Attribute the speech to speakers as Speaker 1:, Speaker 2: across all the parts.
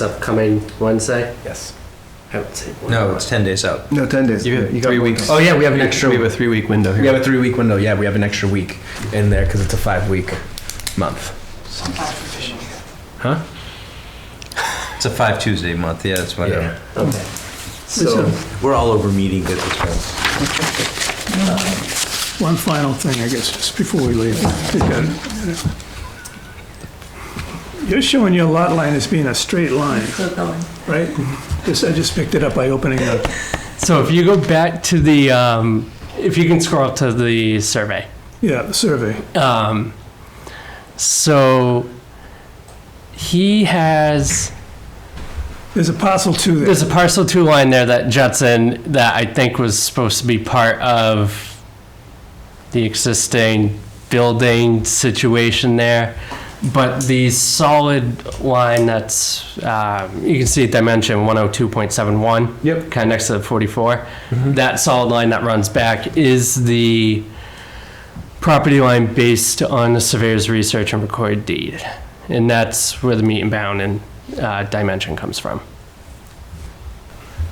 Speaker 1: It's upcoming Wednesday?
Speaker 2: Yes.
Speaker 1: I would say. one
Speaker 3: No,
Speaker 1: month.
Speaker 3: it's 10 days out.
Speaker 4: No, 10 days.
Speaker 2: You have
Speaker 4: got
Speaker 2: three
Speaker 4: one
Speaker 2: weeks.
Speaker 4: day.
Speaker 1: Oh, yeah, we have an extra.
Speaker 2: We have a three week window here. We have a three week window. Yeah, we have an extra week in there because it's a five week month. Huh?
Speaker 3: It's a five Tuesday month. Yeah, that's what.
Speaker 2: Yeah.
Speaker 1: Okay.
Speaker 3: So we're all over meeting at this point.
Speaker 5: One final thing, I guess, just before we leave. You're showing your lot line as being a straight line,
Speaker 6: Still going.
Speaker 5: right? This, I just picked it up by opening up.
Speaker 1: So if you go back to the, um, if you can scroll up to the survey.
Speaker 5: Yeah, the survey.
Speaker 1: Um, so he has,
Speaker 5: There's a parcel two there.
Speaker 1: there's a parcel two line there that juts in that I think was supposed to be part of the existing building situation there. But the solid line that's, um, you can see dimension 102.71.
Speaker 2: Yep.
Speaker 1: kind of next to the 44. That solid line that runs back is the property line based on the surveyor's research and recorded deed. And that's where the meet and bound and uh, dimension comes from.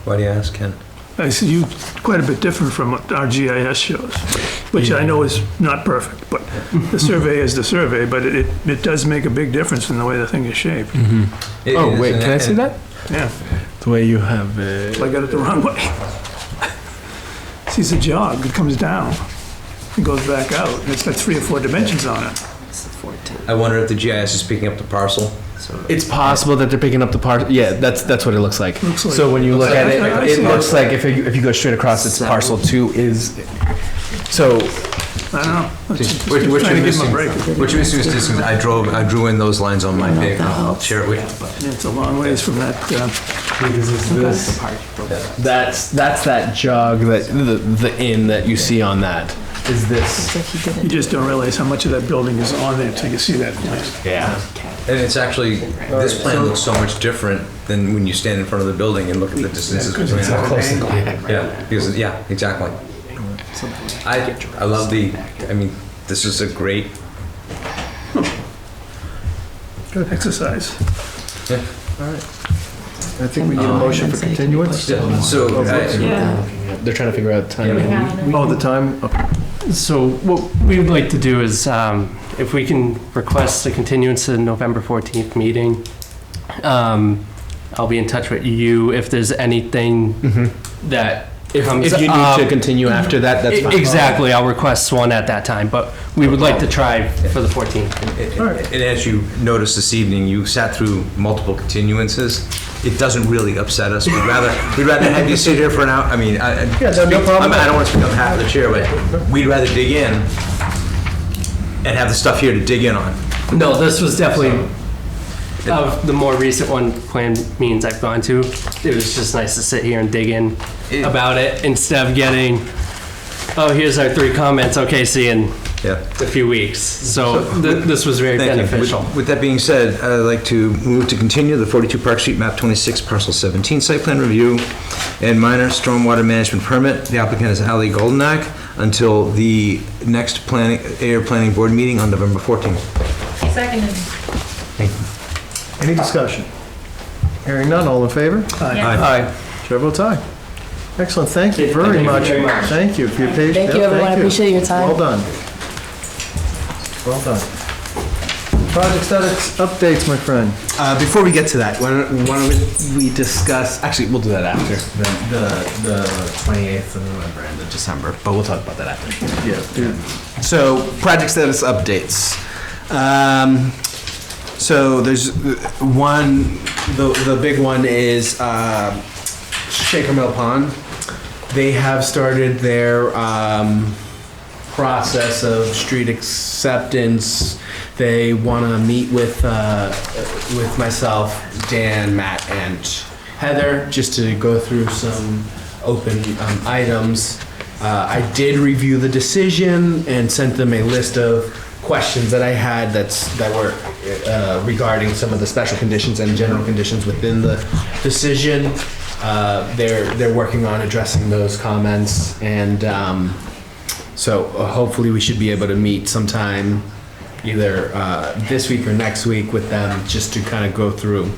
Speaker 3: Why do you ask, Ken?
Speaker 5: I see you quite a bit different from what our GIS shows, which I know is not perfect, but the survey is the survey, but it, it does make a big difference in the way the thing is shaped.
Speaker 3: It
Speaker 2: Oh
Speaker 3: is,
Speaker 2: wait,
Speaker 3: and-
Speaker 2: can I see
Speaker 3: and-
Speaker 2: that?
Speaker 5: Yeah,
Speaker 2: The way you have it.
Speaker 5: I got it the wrong way. Sees a jog, it comes down, it goes back out, and it's got three or four dimensions on it.
Speaker 3: I wonder if the GIS is picking up the parcel.
Speaker 2: It's possible that they're picking up the part. Yeah, that's that's what it looks like.
Speaker 5: Looks like-
Speaker 2: so when you look
Speaker 5: like-
Speaker 2: at it,
Speaker 5: I
Speaker 2: it
Speaker 5: see.
Speaker 2: looks like if you, if you go straight across, it's parcel two is. So
Speaker 5: I don't know. I'm
Speaker 3: Just-
Speaker 5: just- just
Speaker 3: Which, which
Speaker 5: trying
Speaker 3: we
Speaker 5: to give him
Speaker 3: missing-
Speaker 5: a break.
Speaker 3: which we missing is distance. I drove, I drew in those lines on my paper. I'll share it with you.
Speaker 5: It's a long ways from that, uh,
Speaker 2: that's that's that jog that the the inn that you see on that is this.
Speaker 6: So he
Speaker 5: you
Speaker 6: didn't.
Speaker 5: just don't realize how much of that building is on there until you see that place.
Speaker 2: Yeah.
Speaker 3: And it's actually, this plan looks so much different than when you stand in front of the building and look at the distances between them. Yeah, because, yeah, exactly. I, I love the, I mean, this is a great,
Speaker 5: Good uh, exercise.
Speaker 4: I think we need a motion for continuance.
Speaker 3: so, I-
Speaker 6: Yeah.
Speaker 2: They're trying to figure out time.
Speaker 4: Oh, the time? Okay.
Speaker 1: So what we would like to do is, um, if we can request a continuance to the November 14th meeting, um, I'll be in touch with you if there's anything that
Speaker 2: Mm-hmm. If,
Speaker 1: comes
Speaker 2: if you need
Speaker 1: up.
Speaker 2: to continue after that, that's fine.
Speaker 1: um, e-, Exactly, I'll request one at that time, but we would like to try for the 14th.
Speaker 3: and as you noticed this evening, you sat through multiple continuances. It doesn't really upset us. We'd rather, we'd rather have you sit here for an hour, I mean, I, I
Speaker 2: no problem.
Speaker 3: I mean, I don't want to speak on behalf of the chair, but we'd rather dig in and have the stuff here to dig in on.
Speaker 1: No, this was definitely, of the more recent one, plan means I've gone to, it was just nice to sit here and dig in
Speaker 3: Yeah.
Speaker 1: about it instead of getting, oh, here's our three comments, okay, see you in
Speaker 3: Yeah.
Speaker 1: a few weeks. So th- this was very
Speaker 3: Thank you. With-
Speaker 1: beneficial.
Speaker 3: With that being said, I'd like to move to continue the 42 Park Street, map 26, parcel 17, site plan review and minor stormwater management permit. The applicant is Ali Goldenak until the next planning, air planning board meeting on November 14th.
Speaker 6: Seconded.
Speaker 4: Any discussion? Hearing none, all in favor?
Speaker 6: Yeah.
Speaker 4: Aye. Chair votes aye. Excellent, thank you very
Speaker 1: you
Speaker 4: much.
Speaker 1: very much.
Speaker 4: Thank you for your patience.
Speaker 6: Thank you, everyone. I appreciate your time.
Speaker 4: Well done. Well done. Project status updates, my friend.
Speaker 2: Uh, before we get to that, why don't, why don't we discuss? Actually, we'll do that after the the twenty eighth of November and the December, but we'll talk about that after. Yeah. So project status updates. Um, so there's uh, one. The the big one is uh, Shaker Mill Pond. They have started their. Um, process of street acceptance. They want to meet with uh, with myself, Dan, Matt, and Heather just to go through some open um, items. Uh, I did review the decision and sent them a list of questions that I had that's that were uh, regarding some of the special conditions and general conditions within the decision. Uh, they're they're working on addressing those comments and. Um, so uh, hopefully we should be able to meet sometime either uh, this week or next week with them just to kind of go through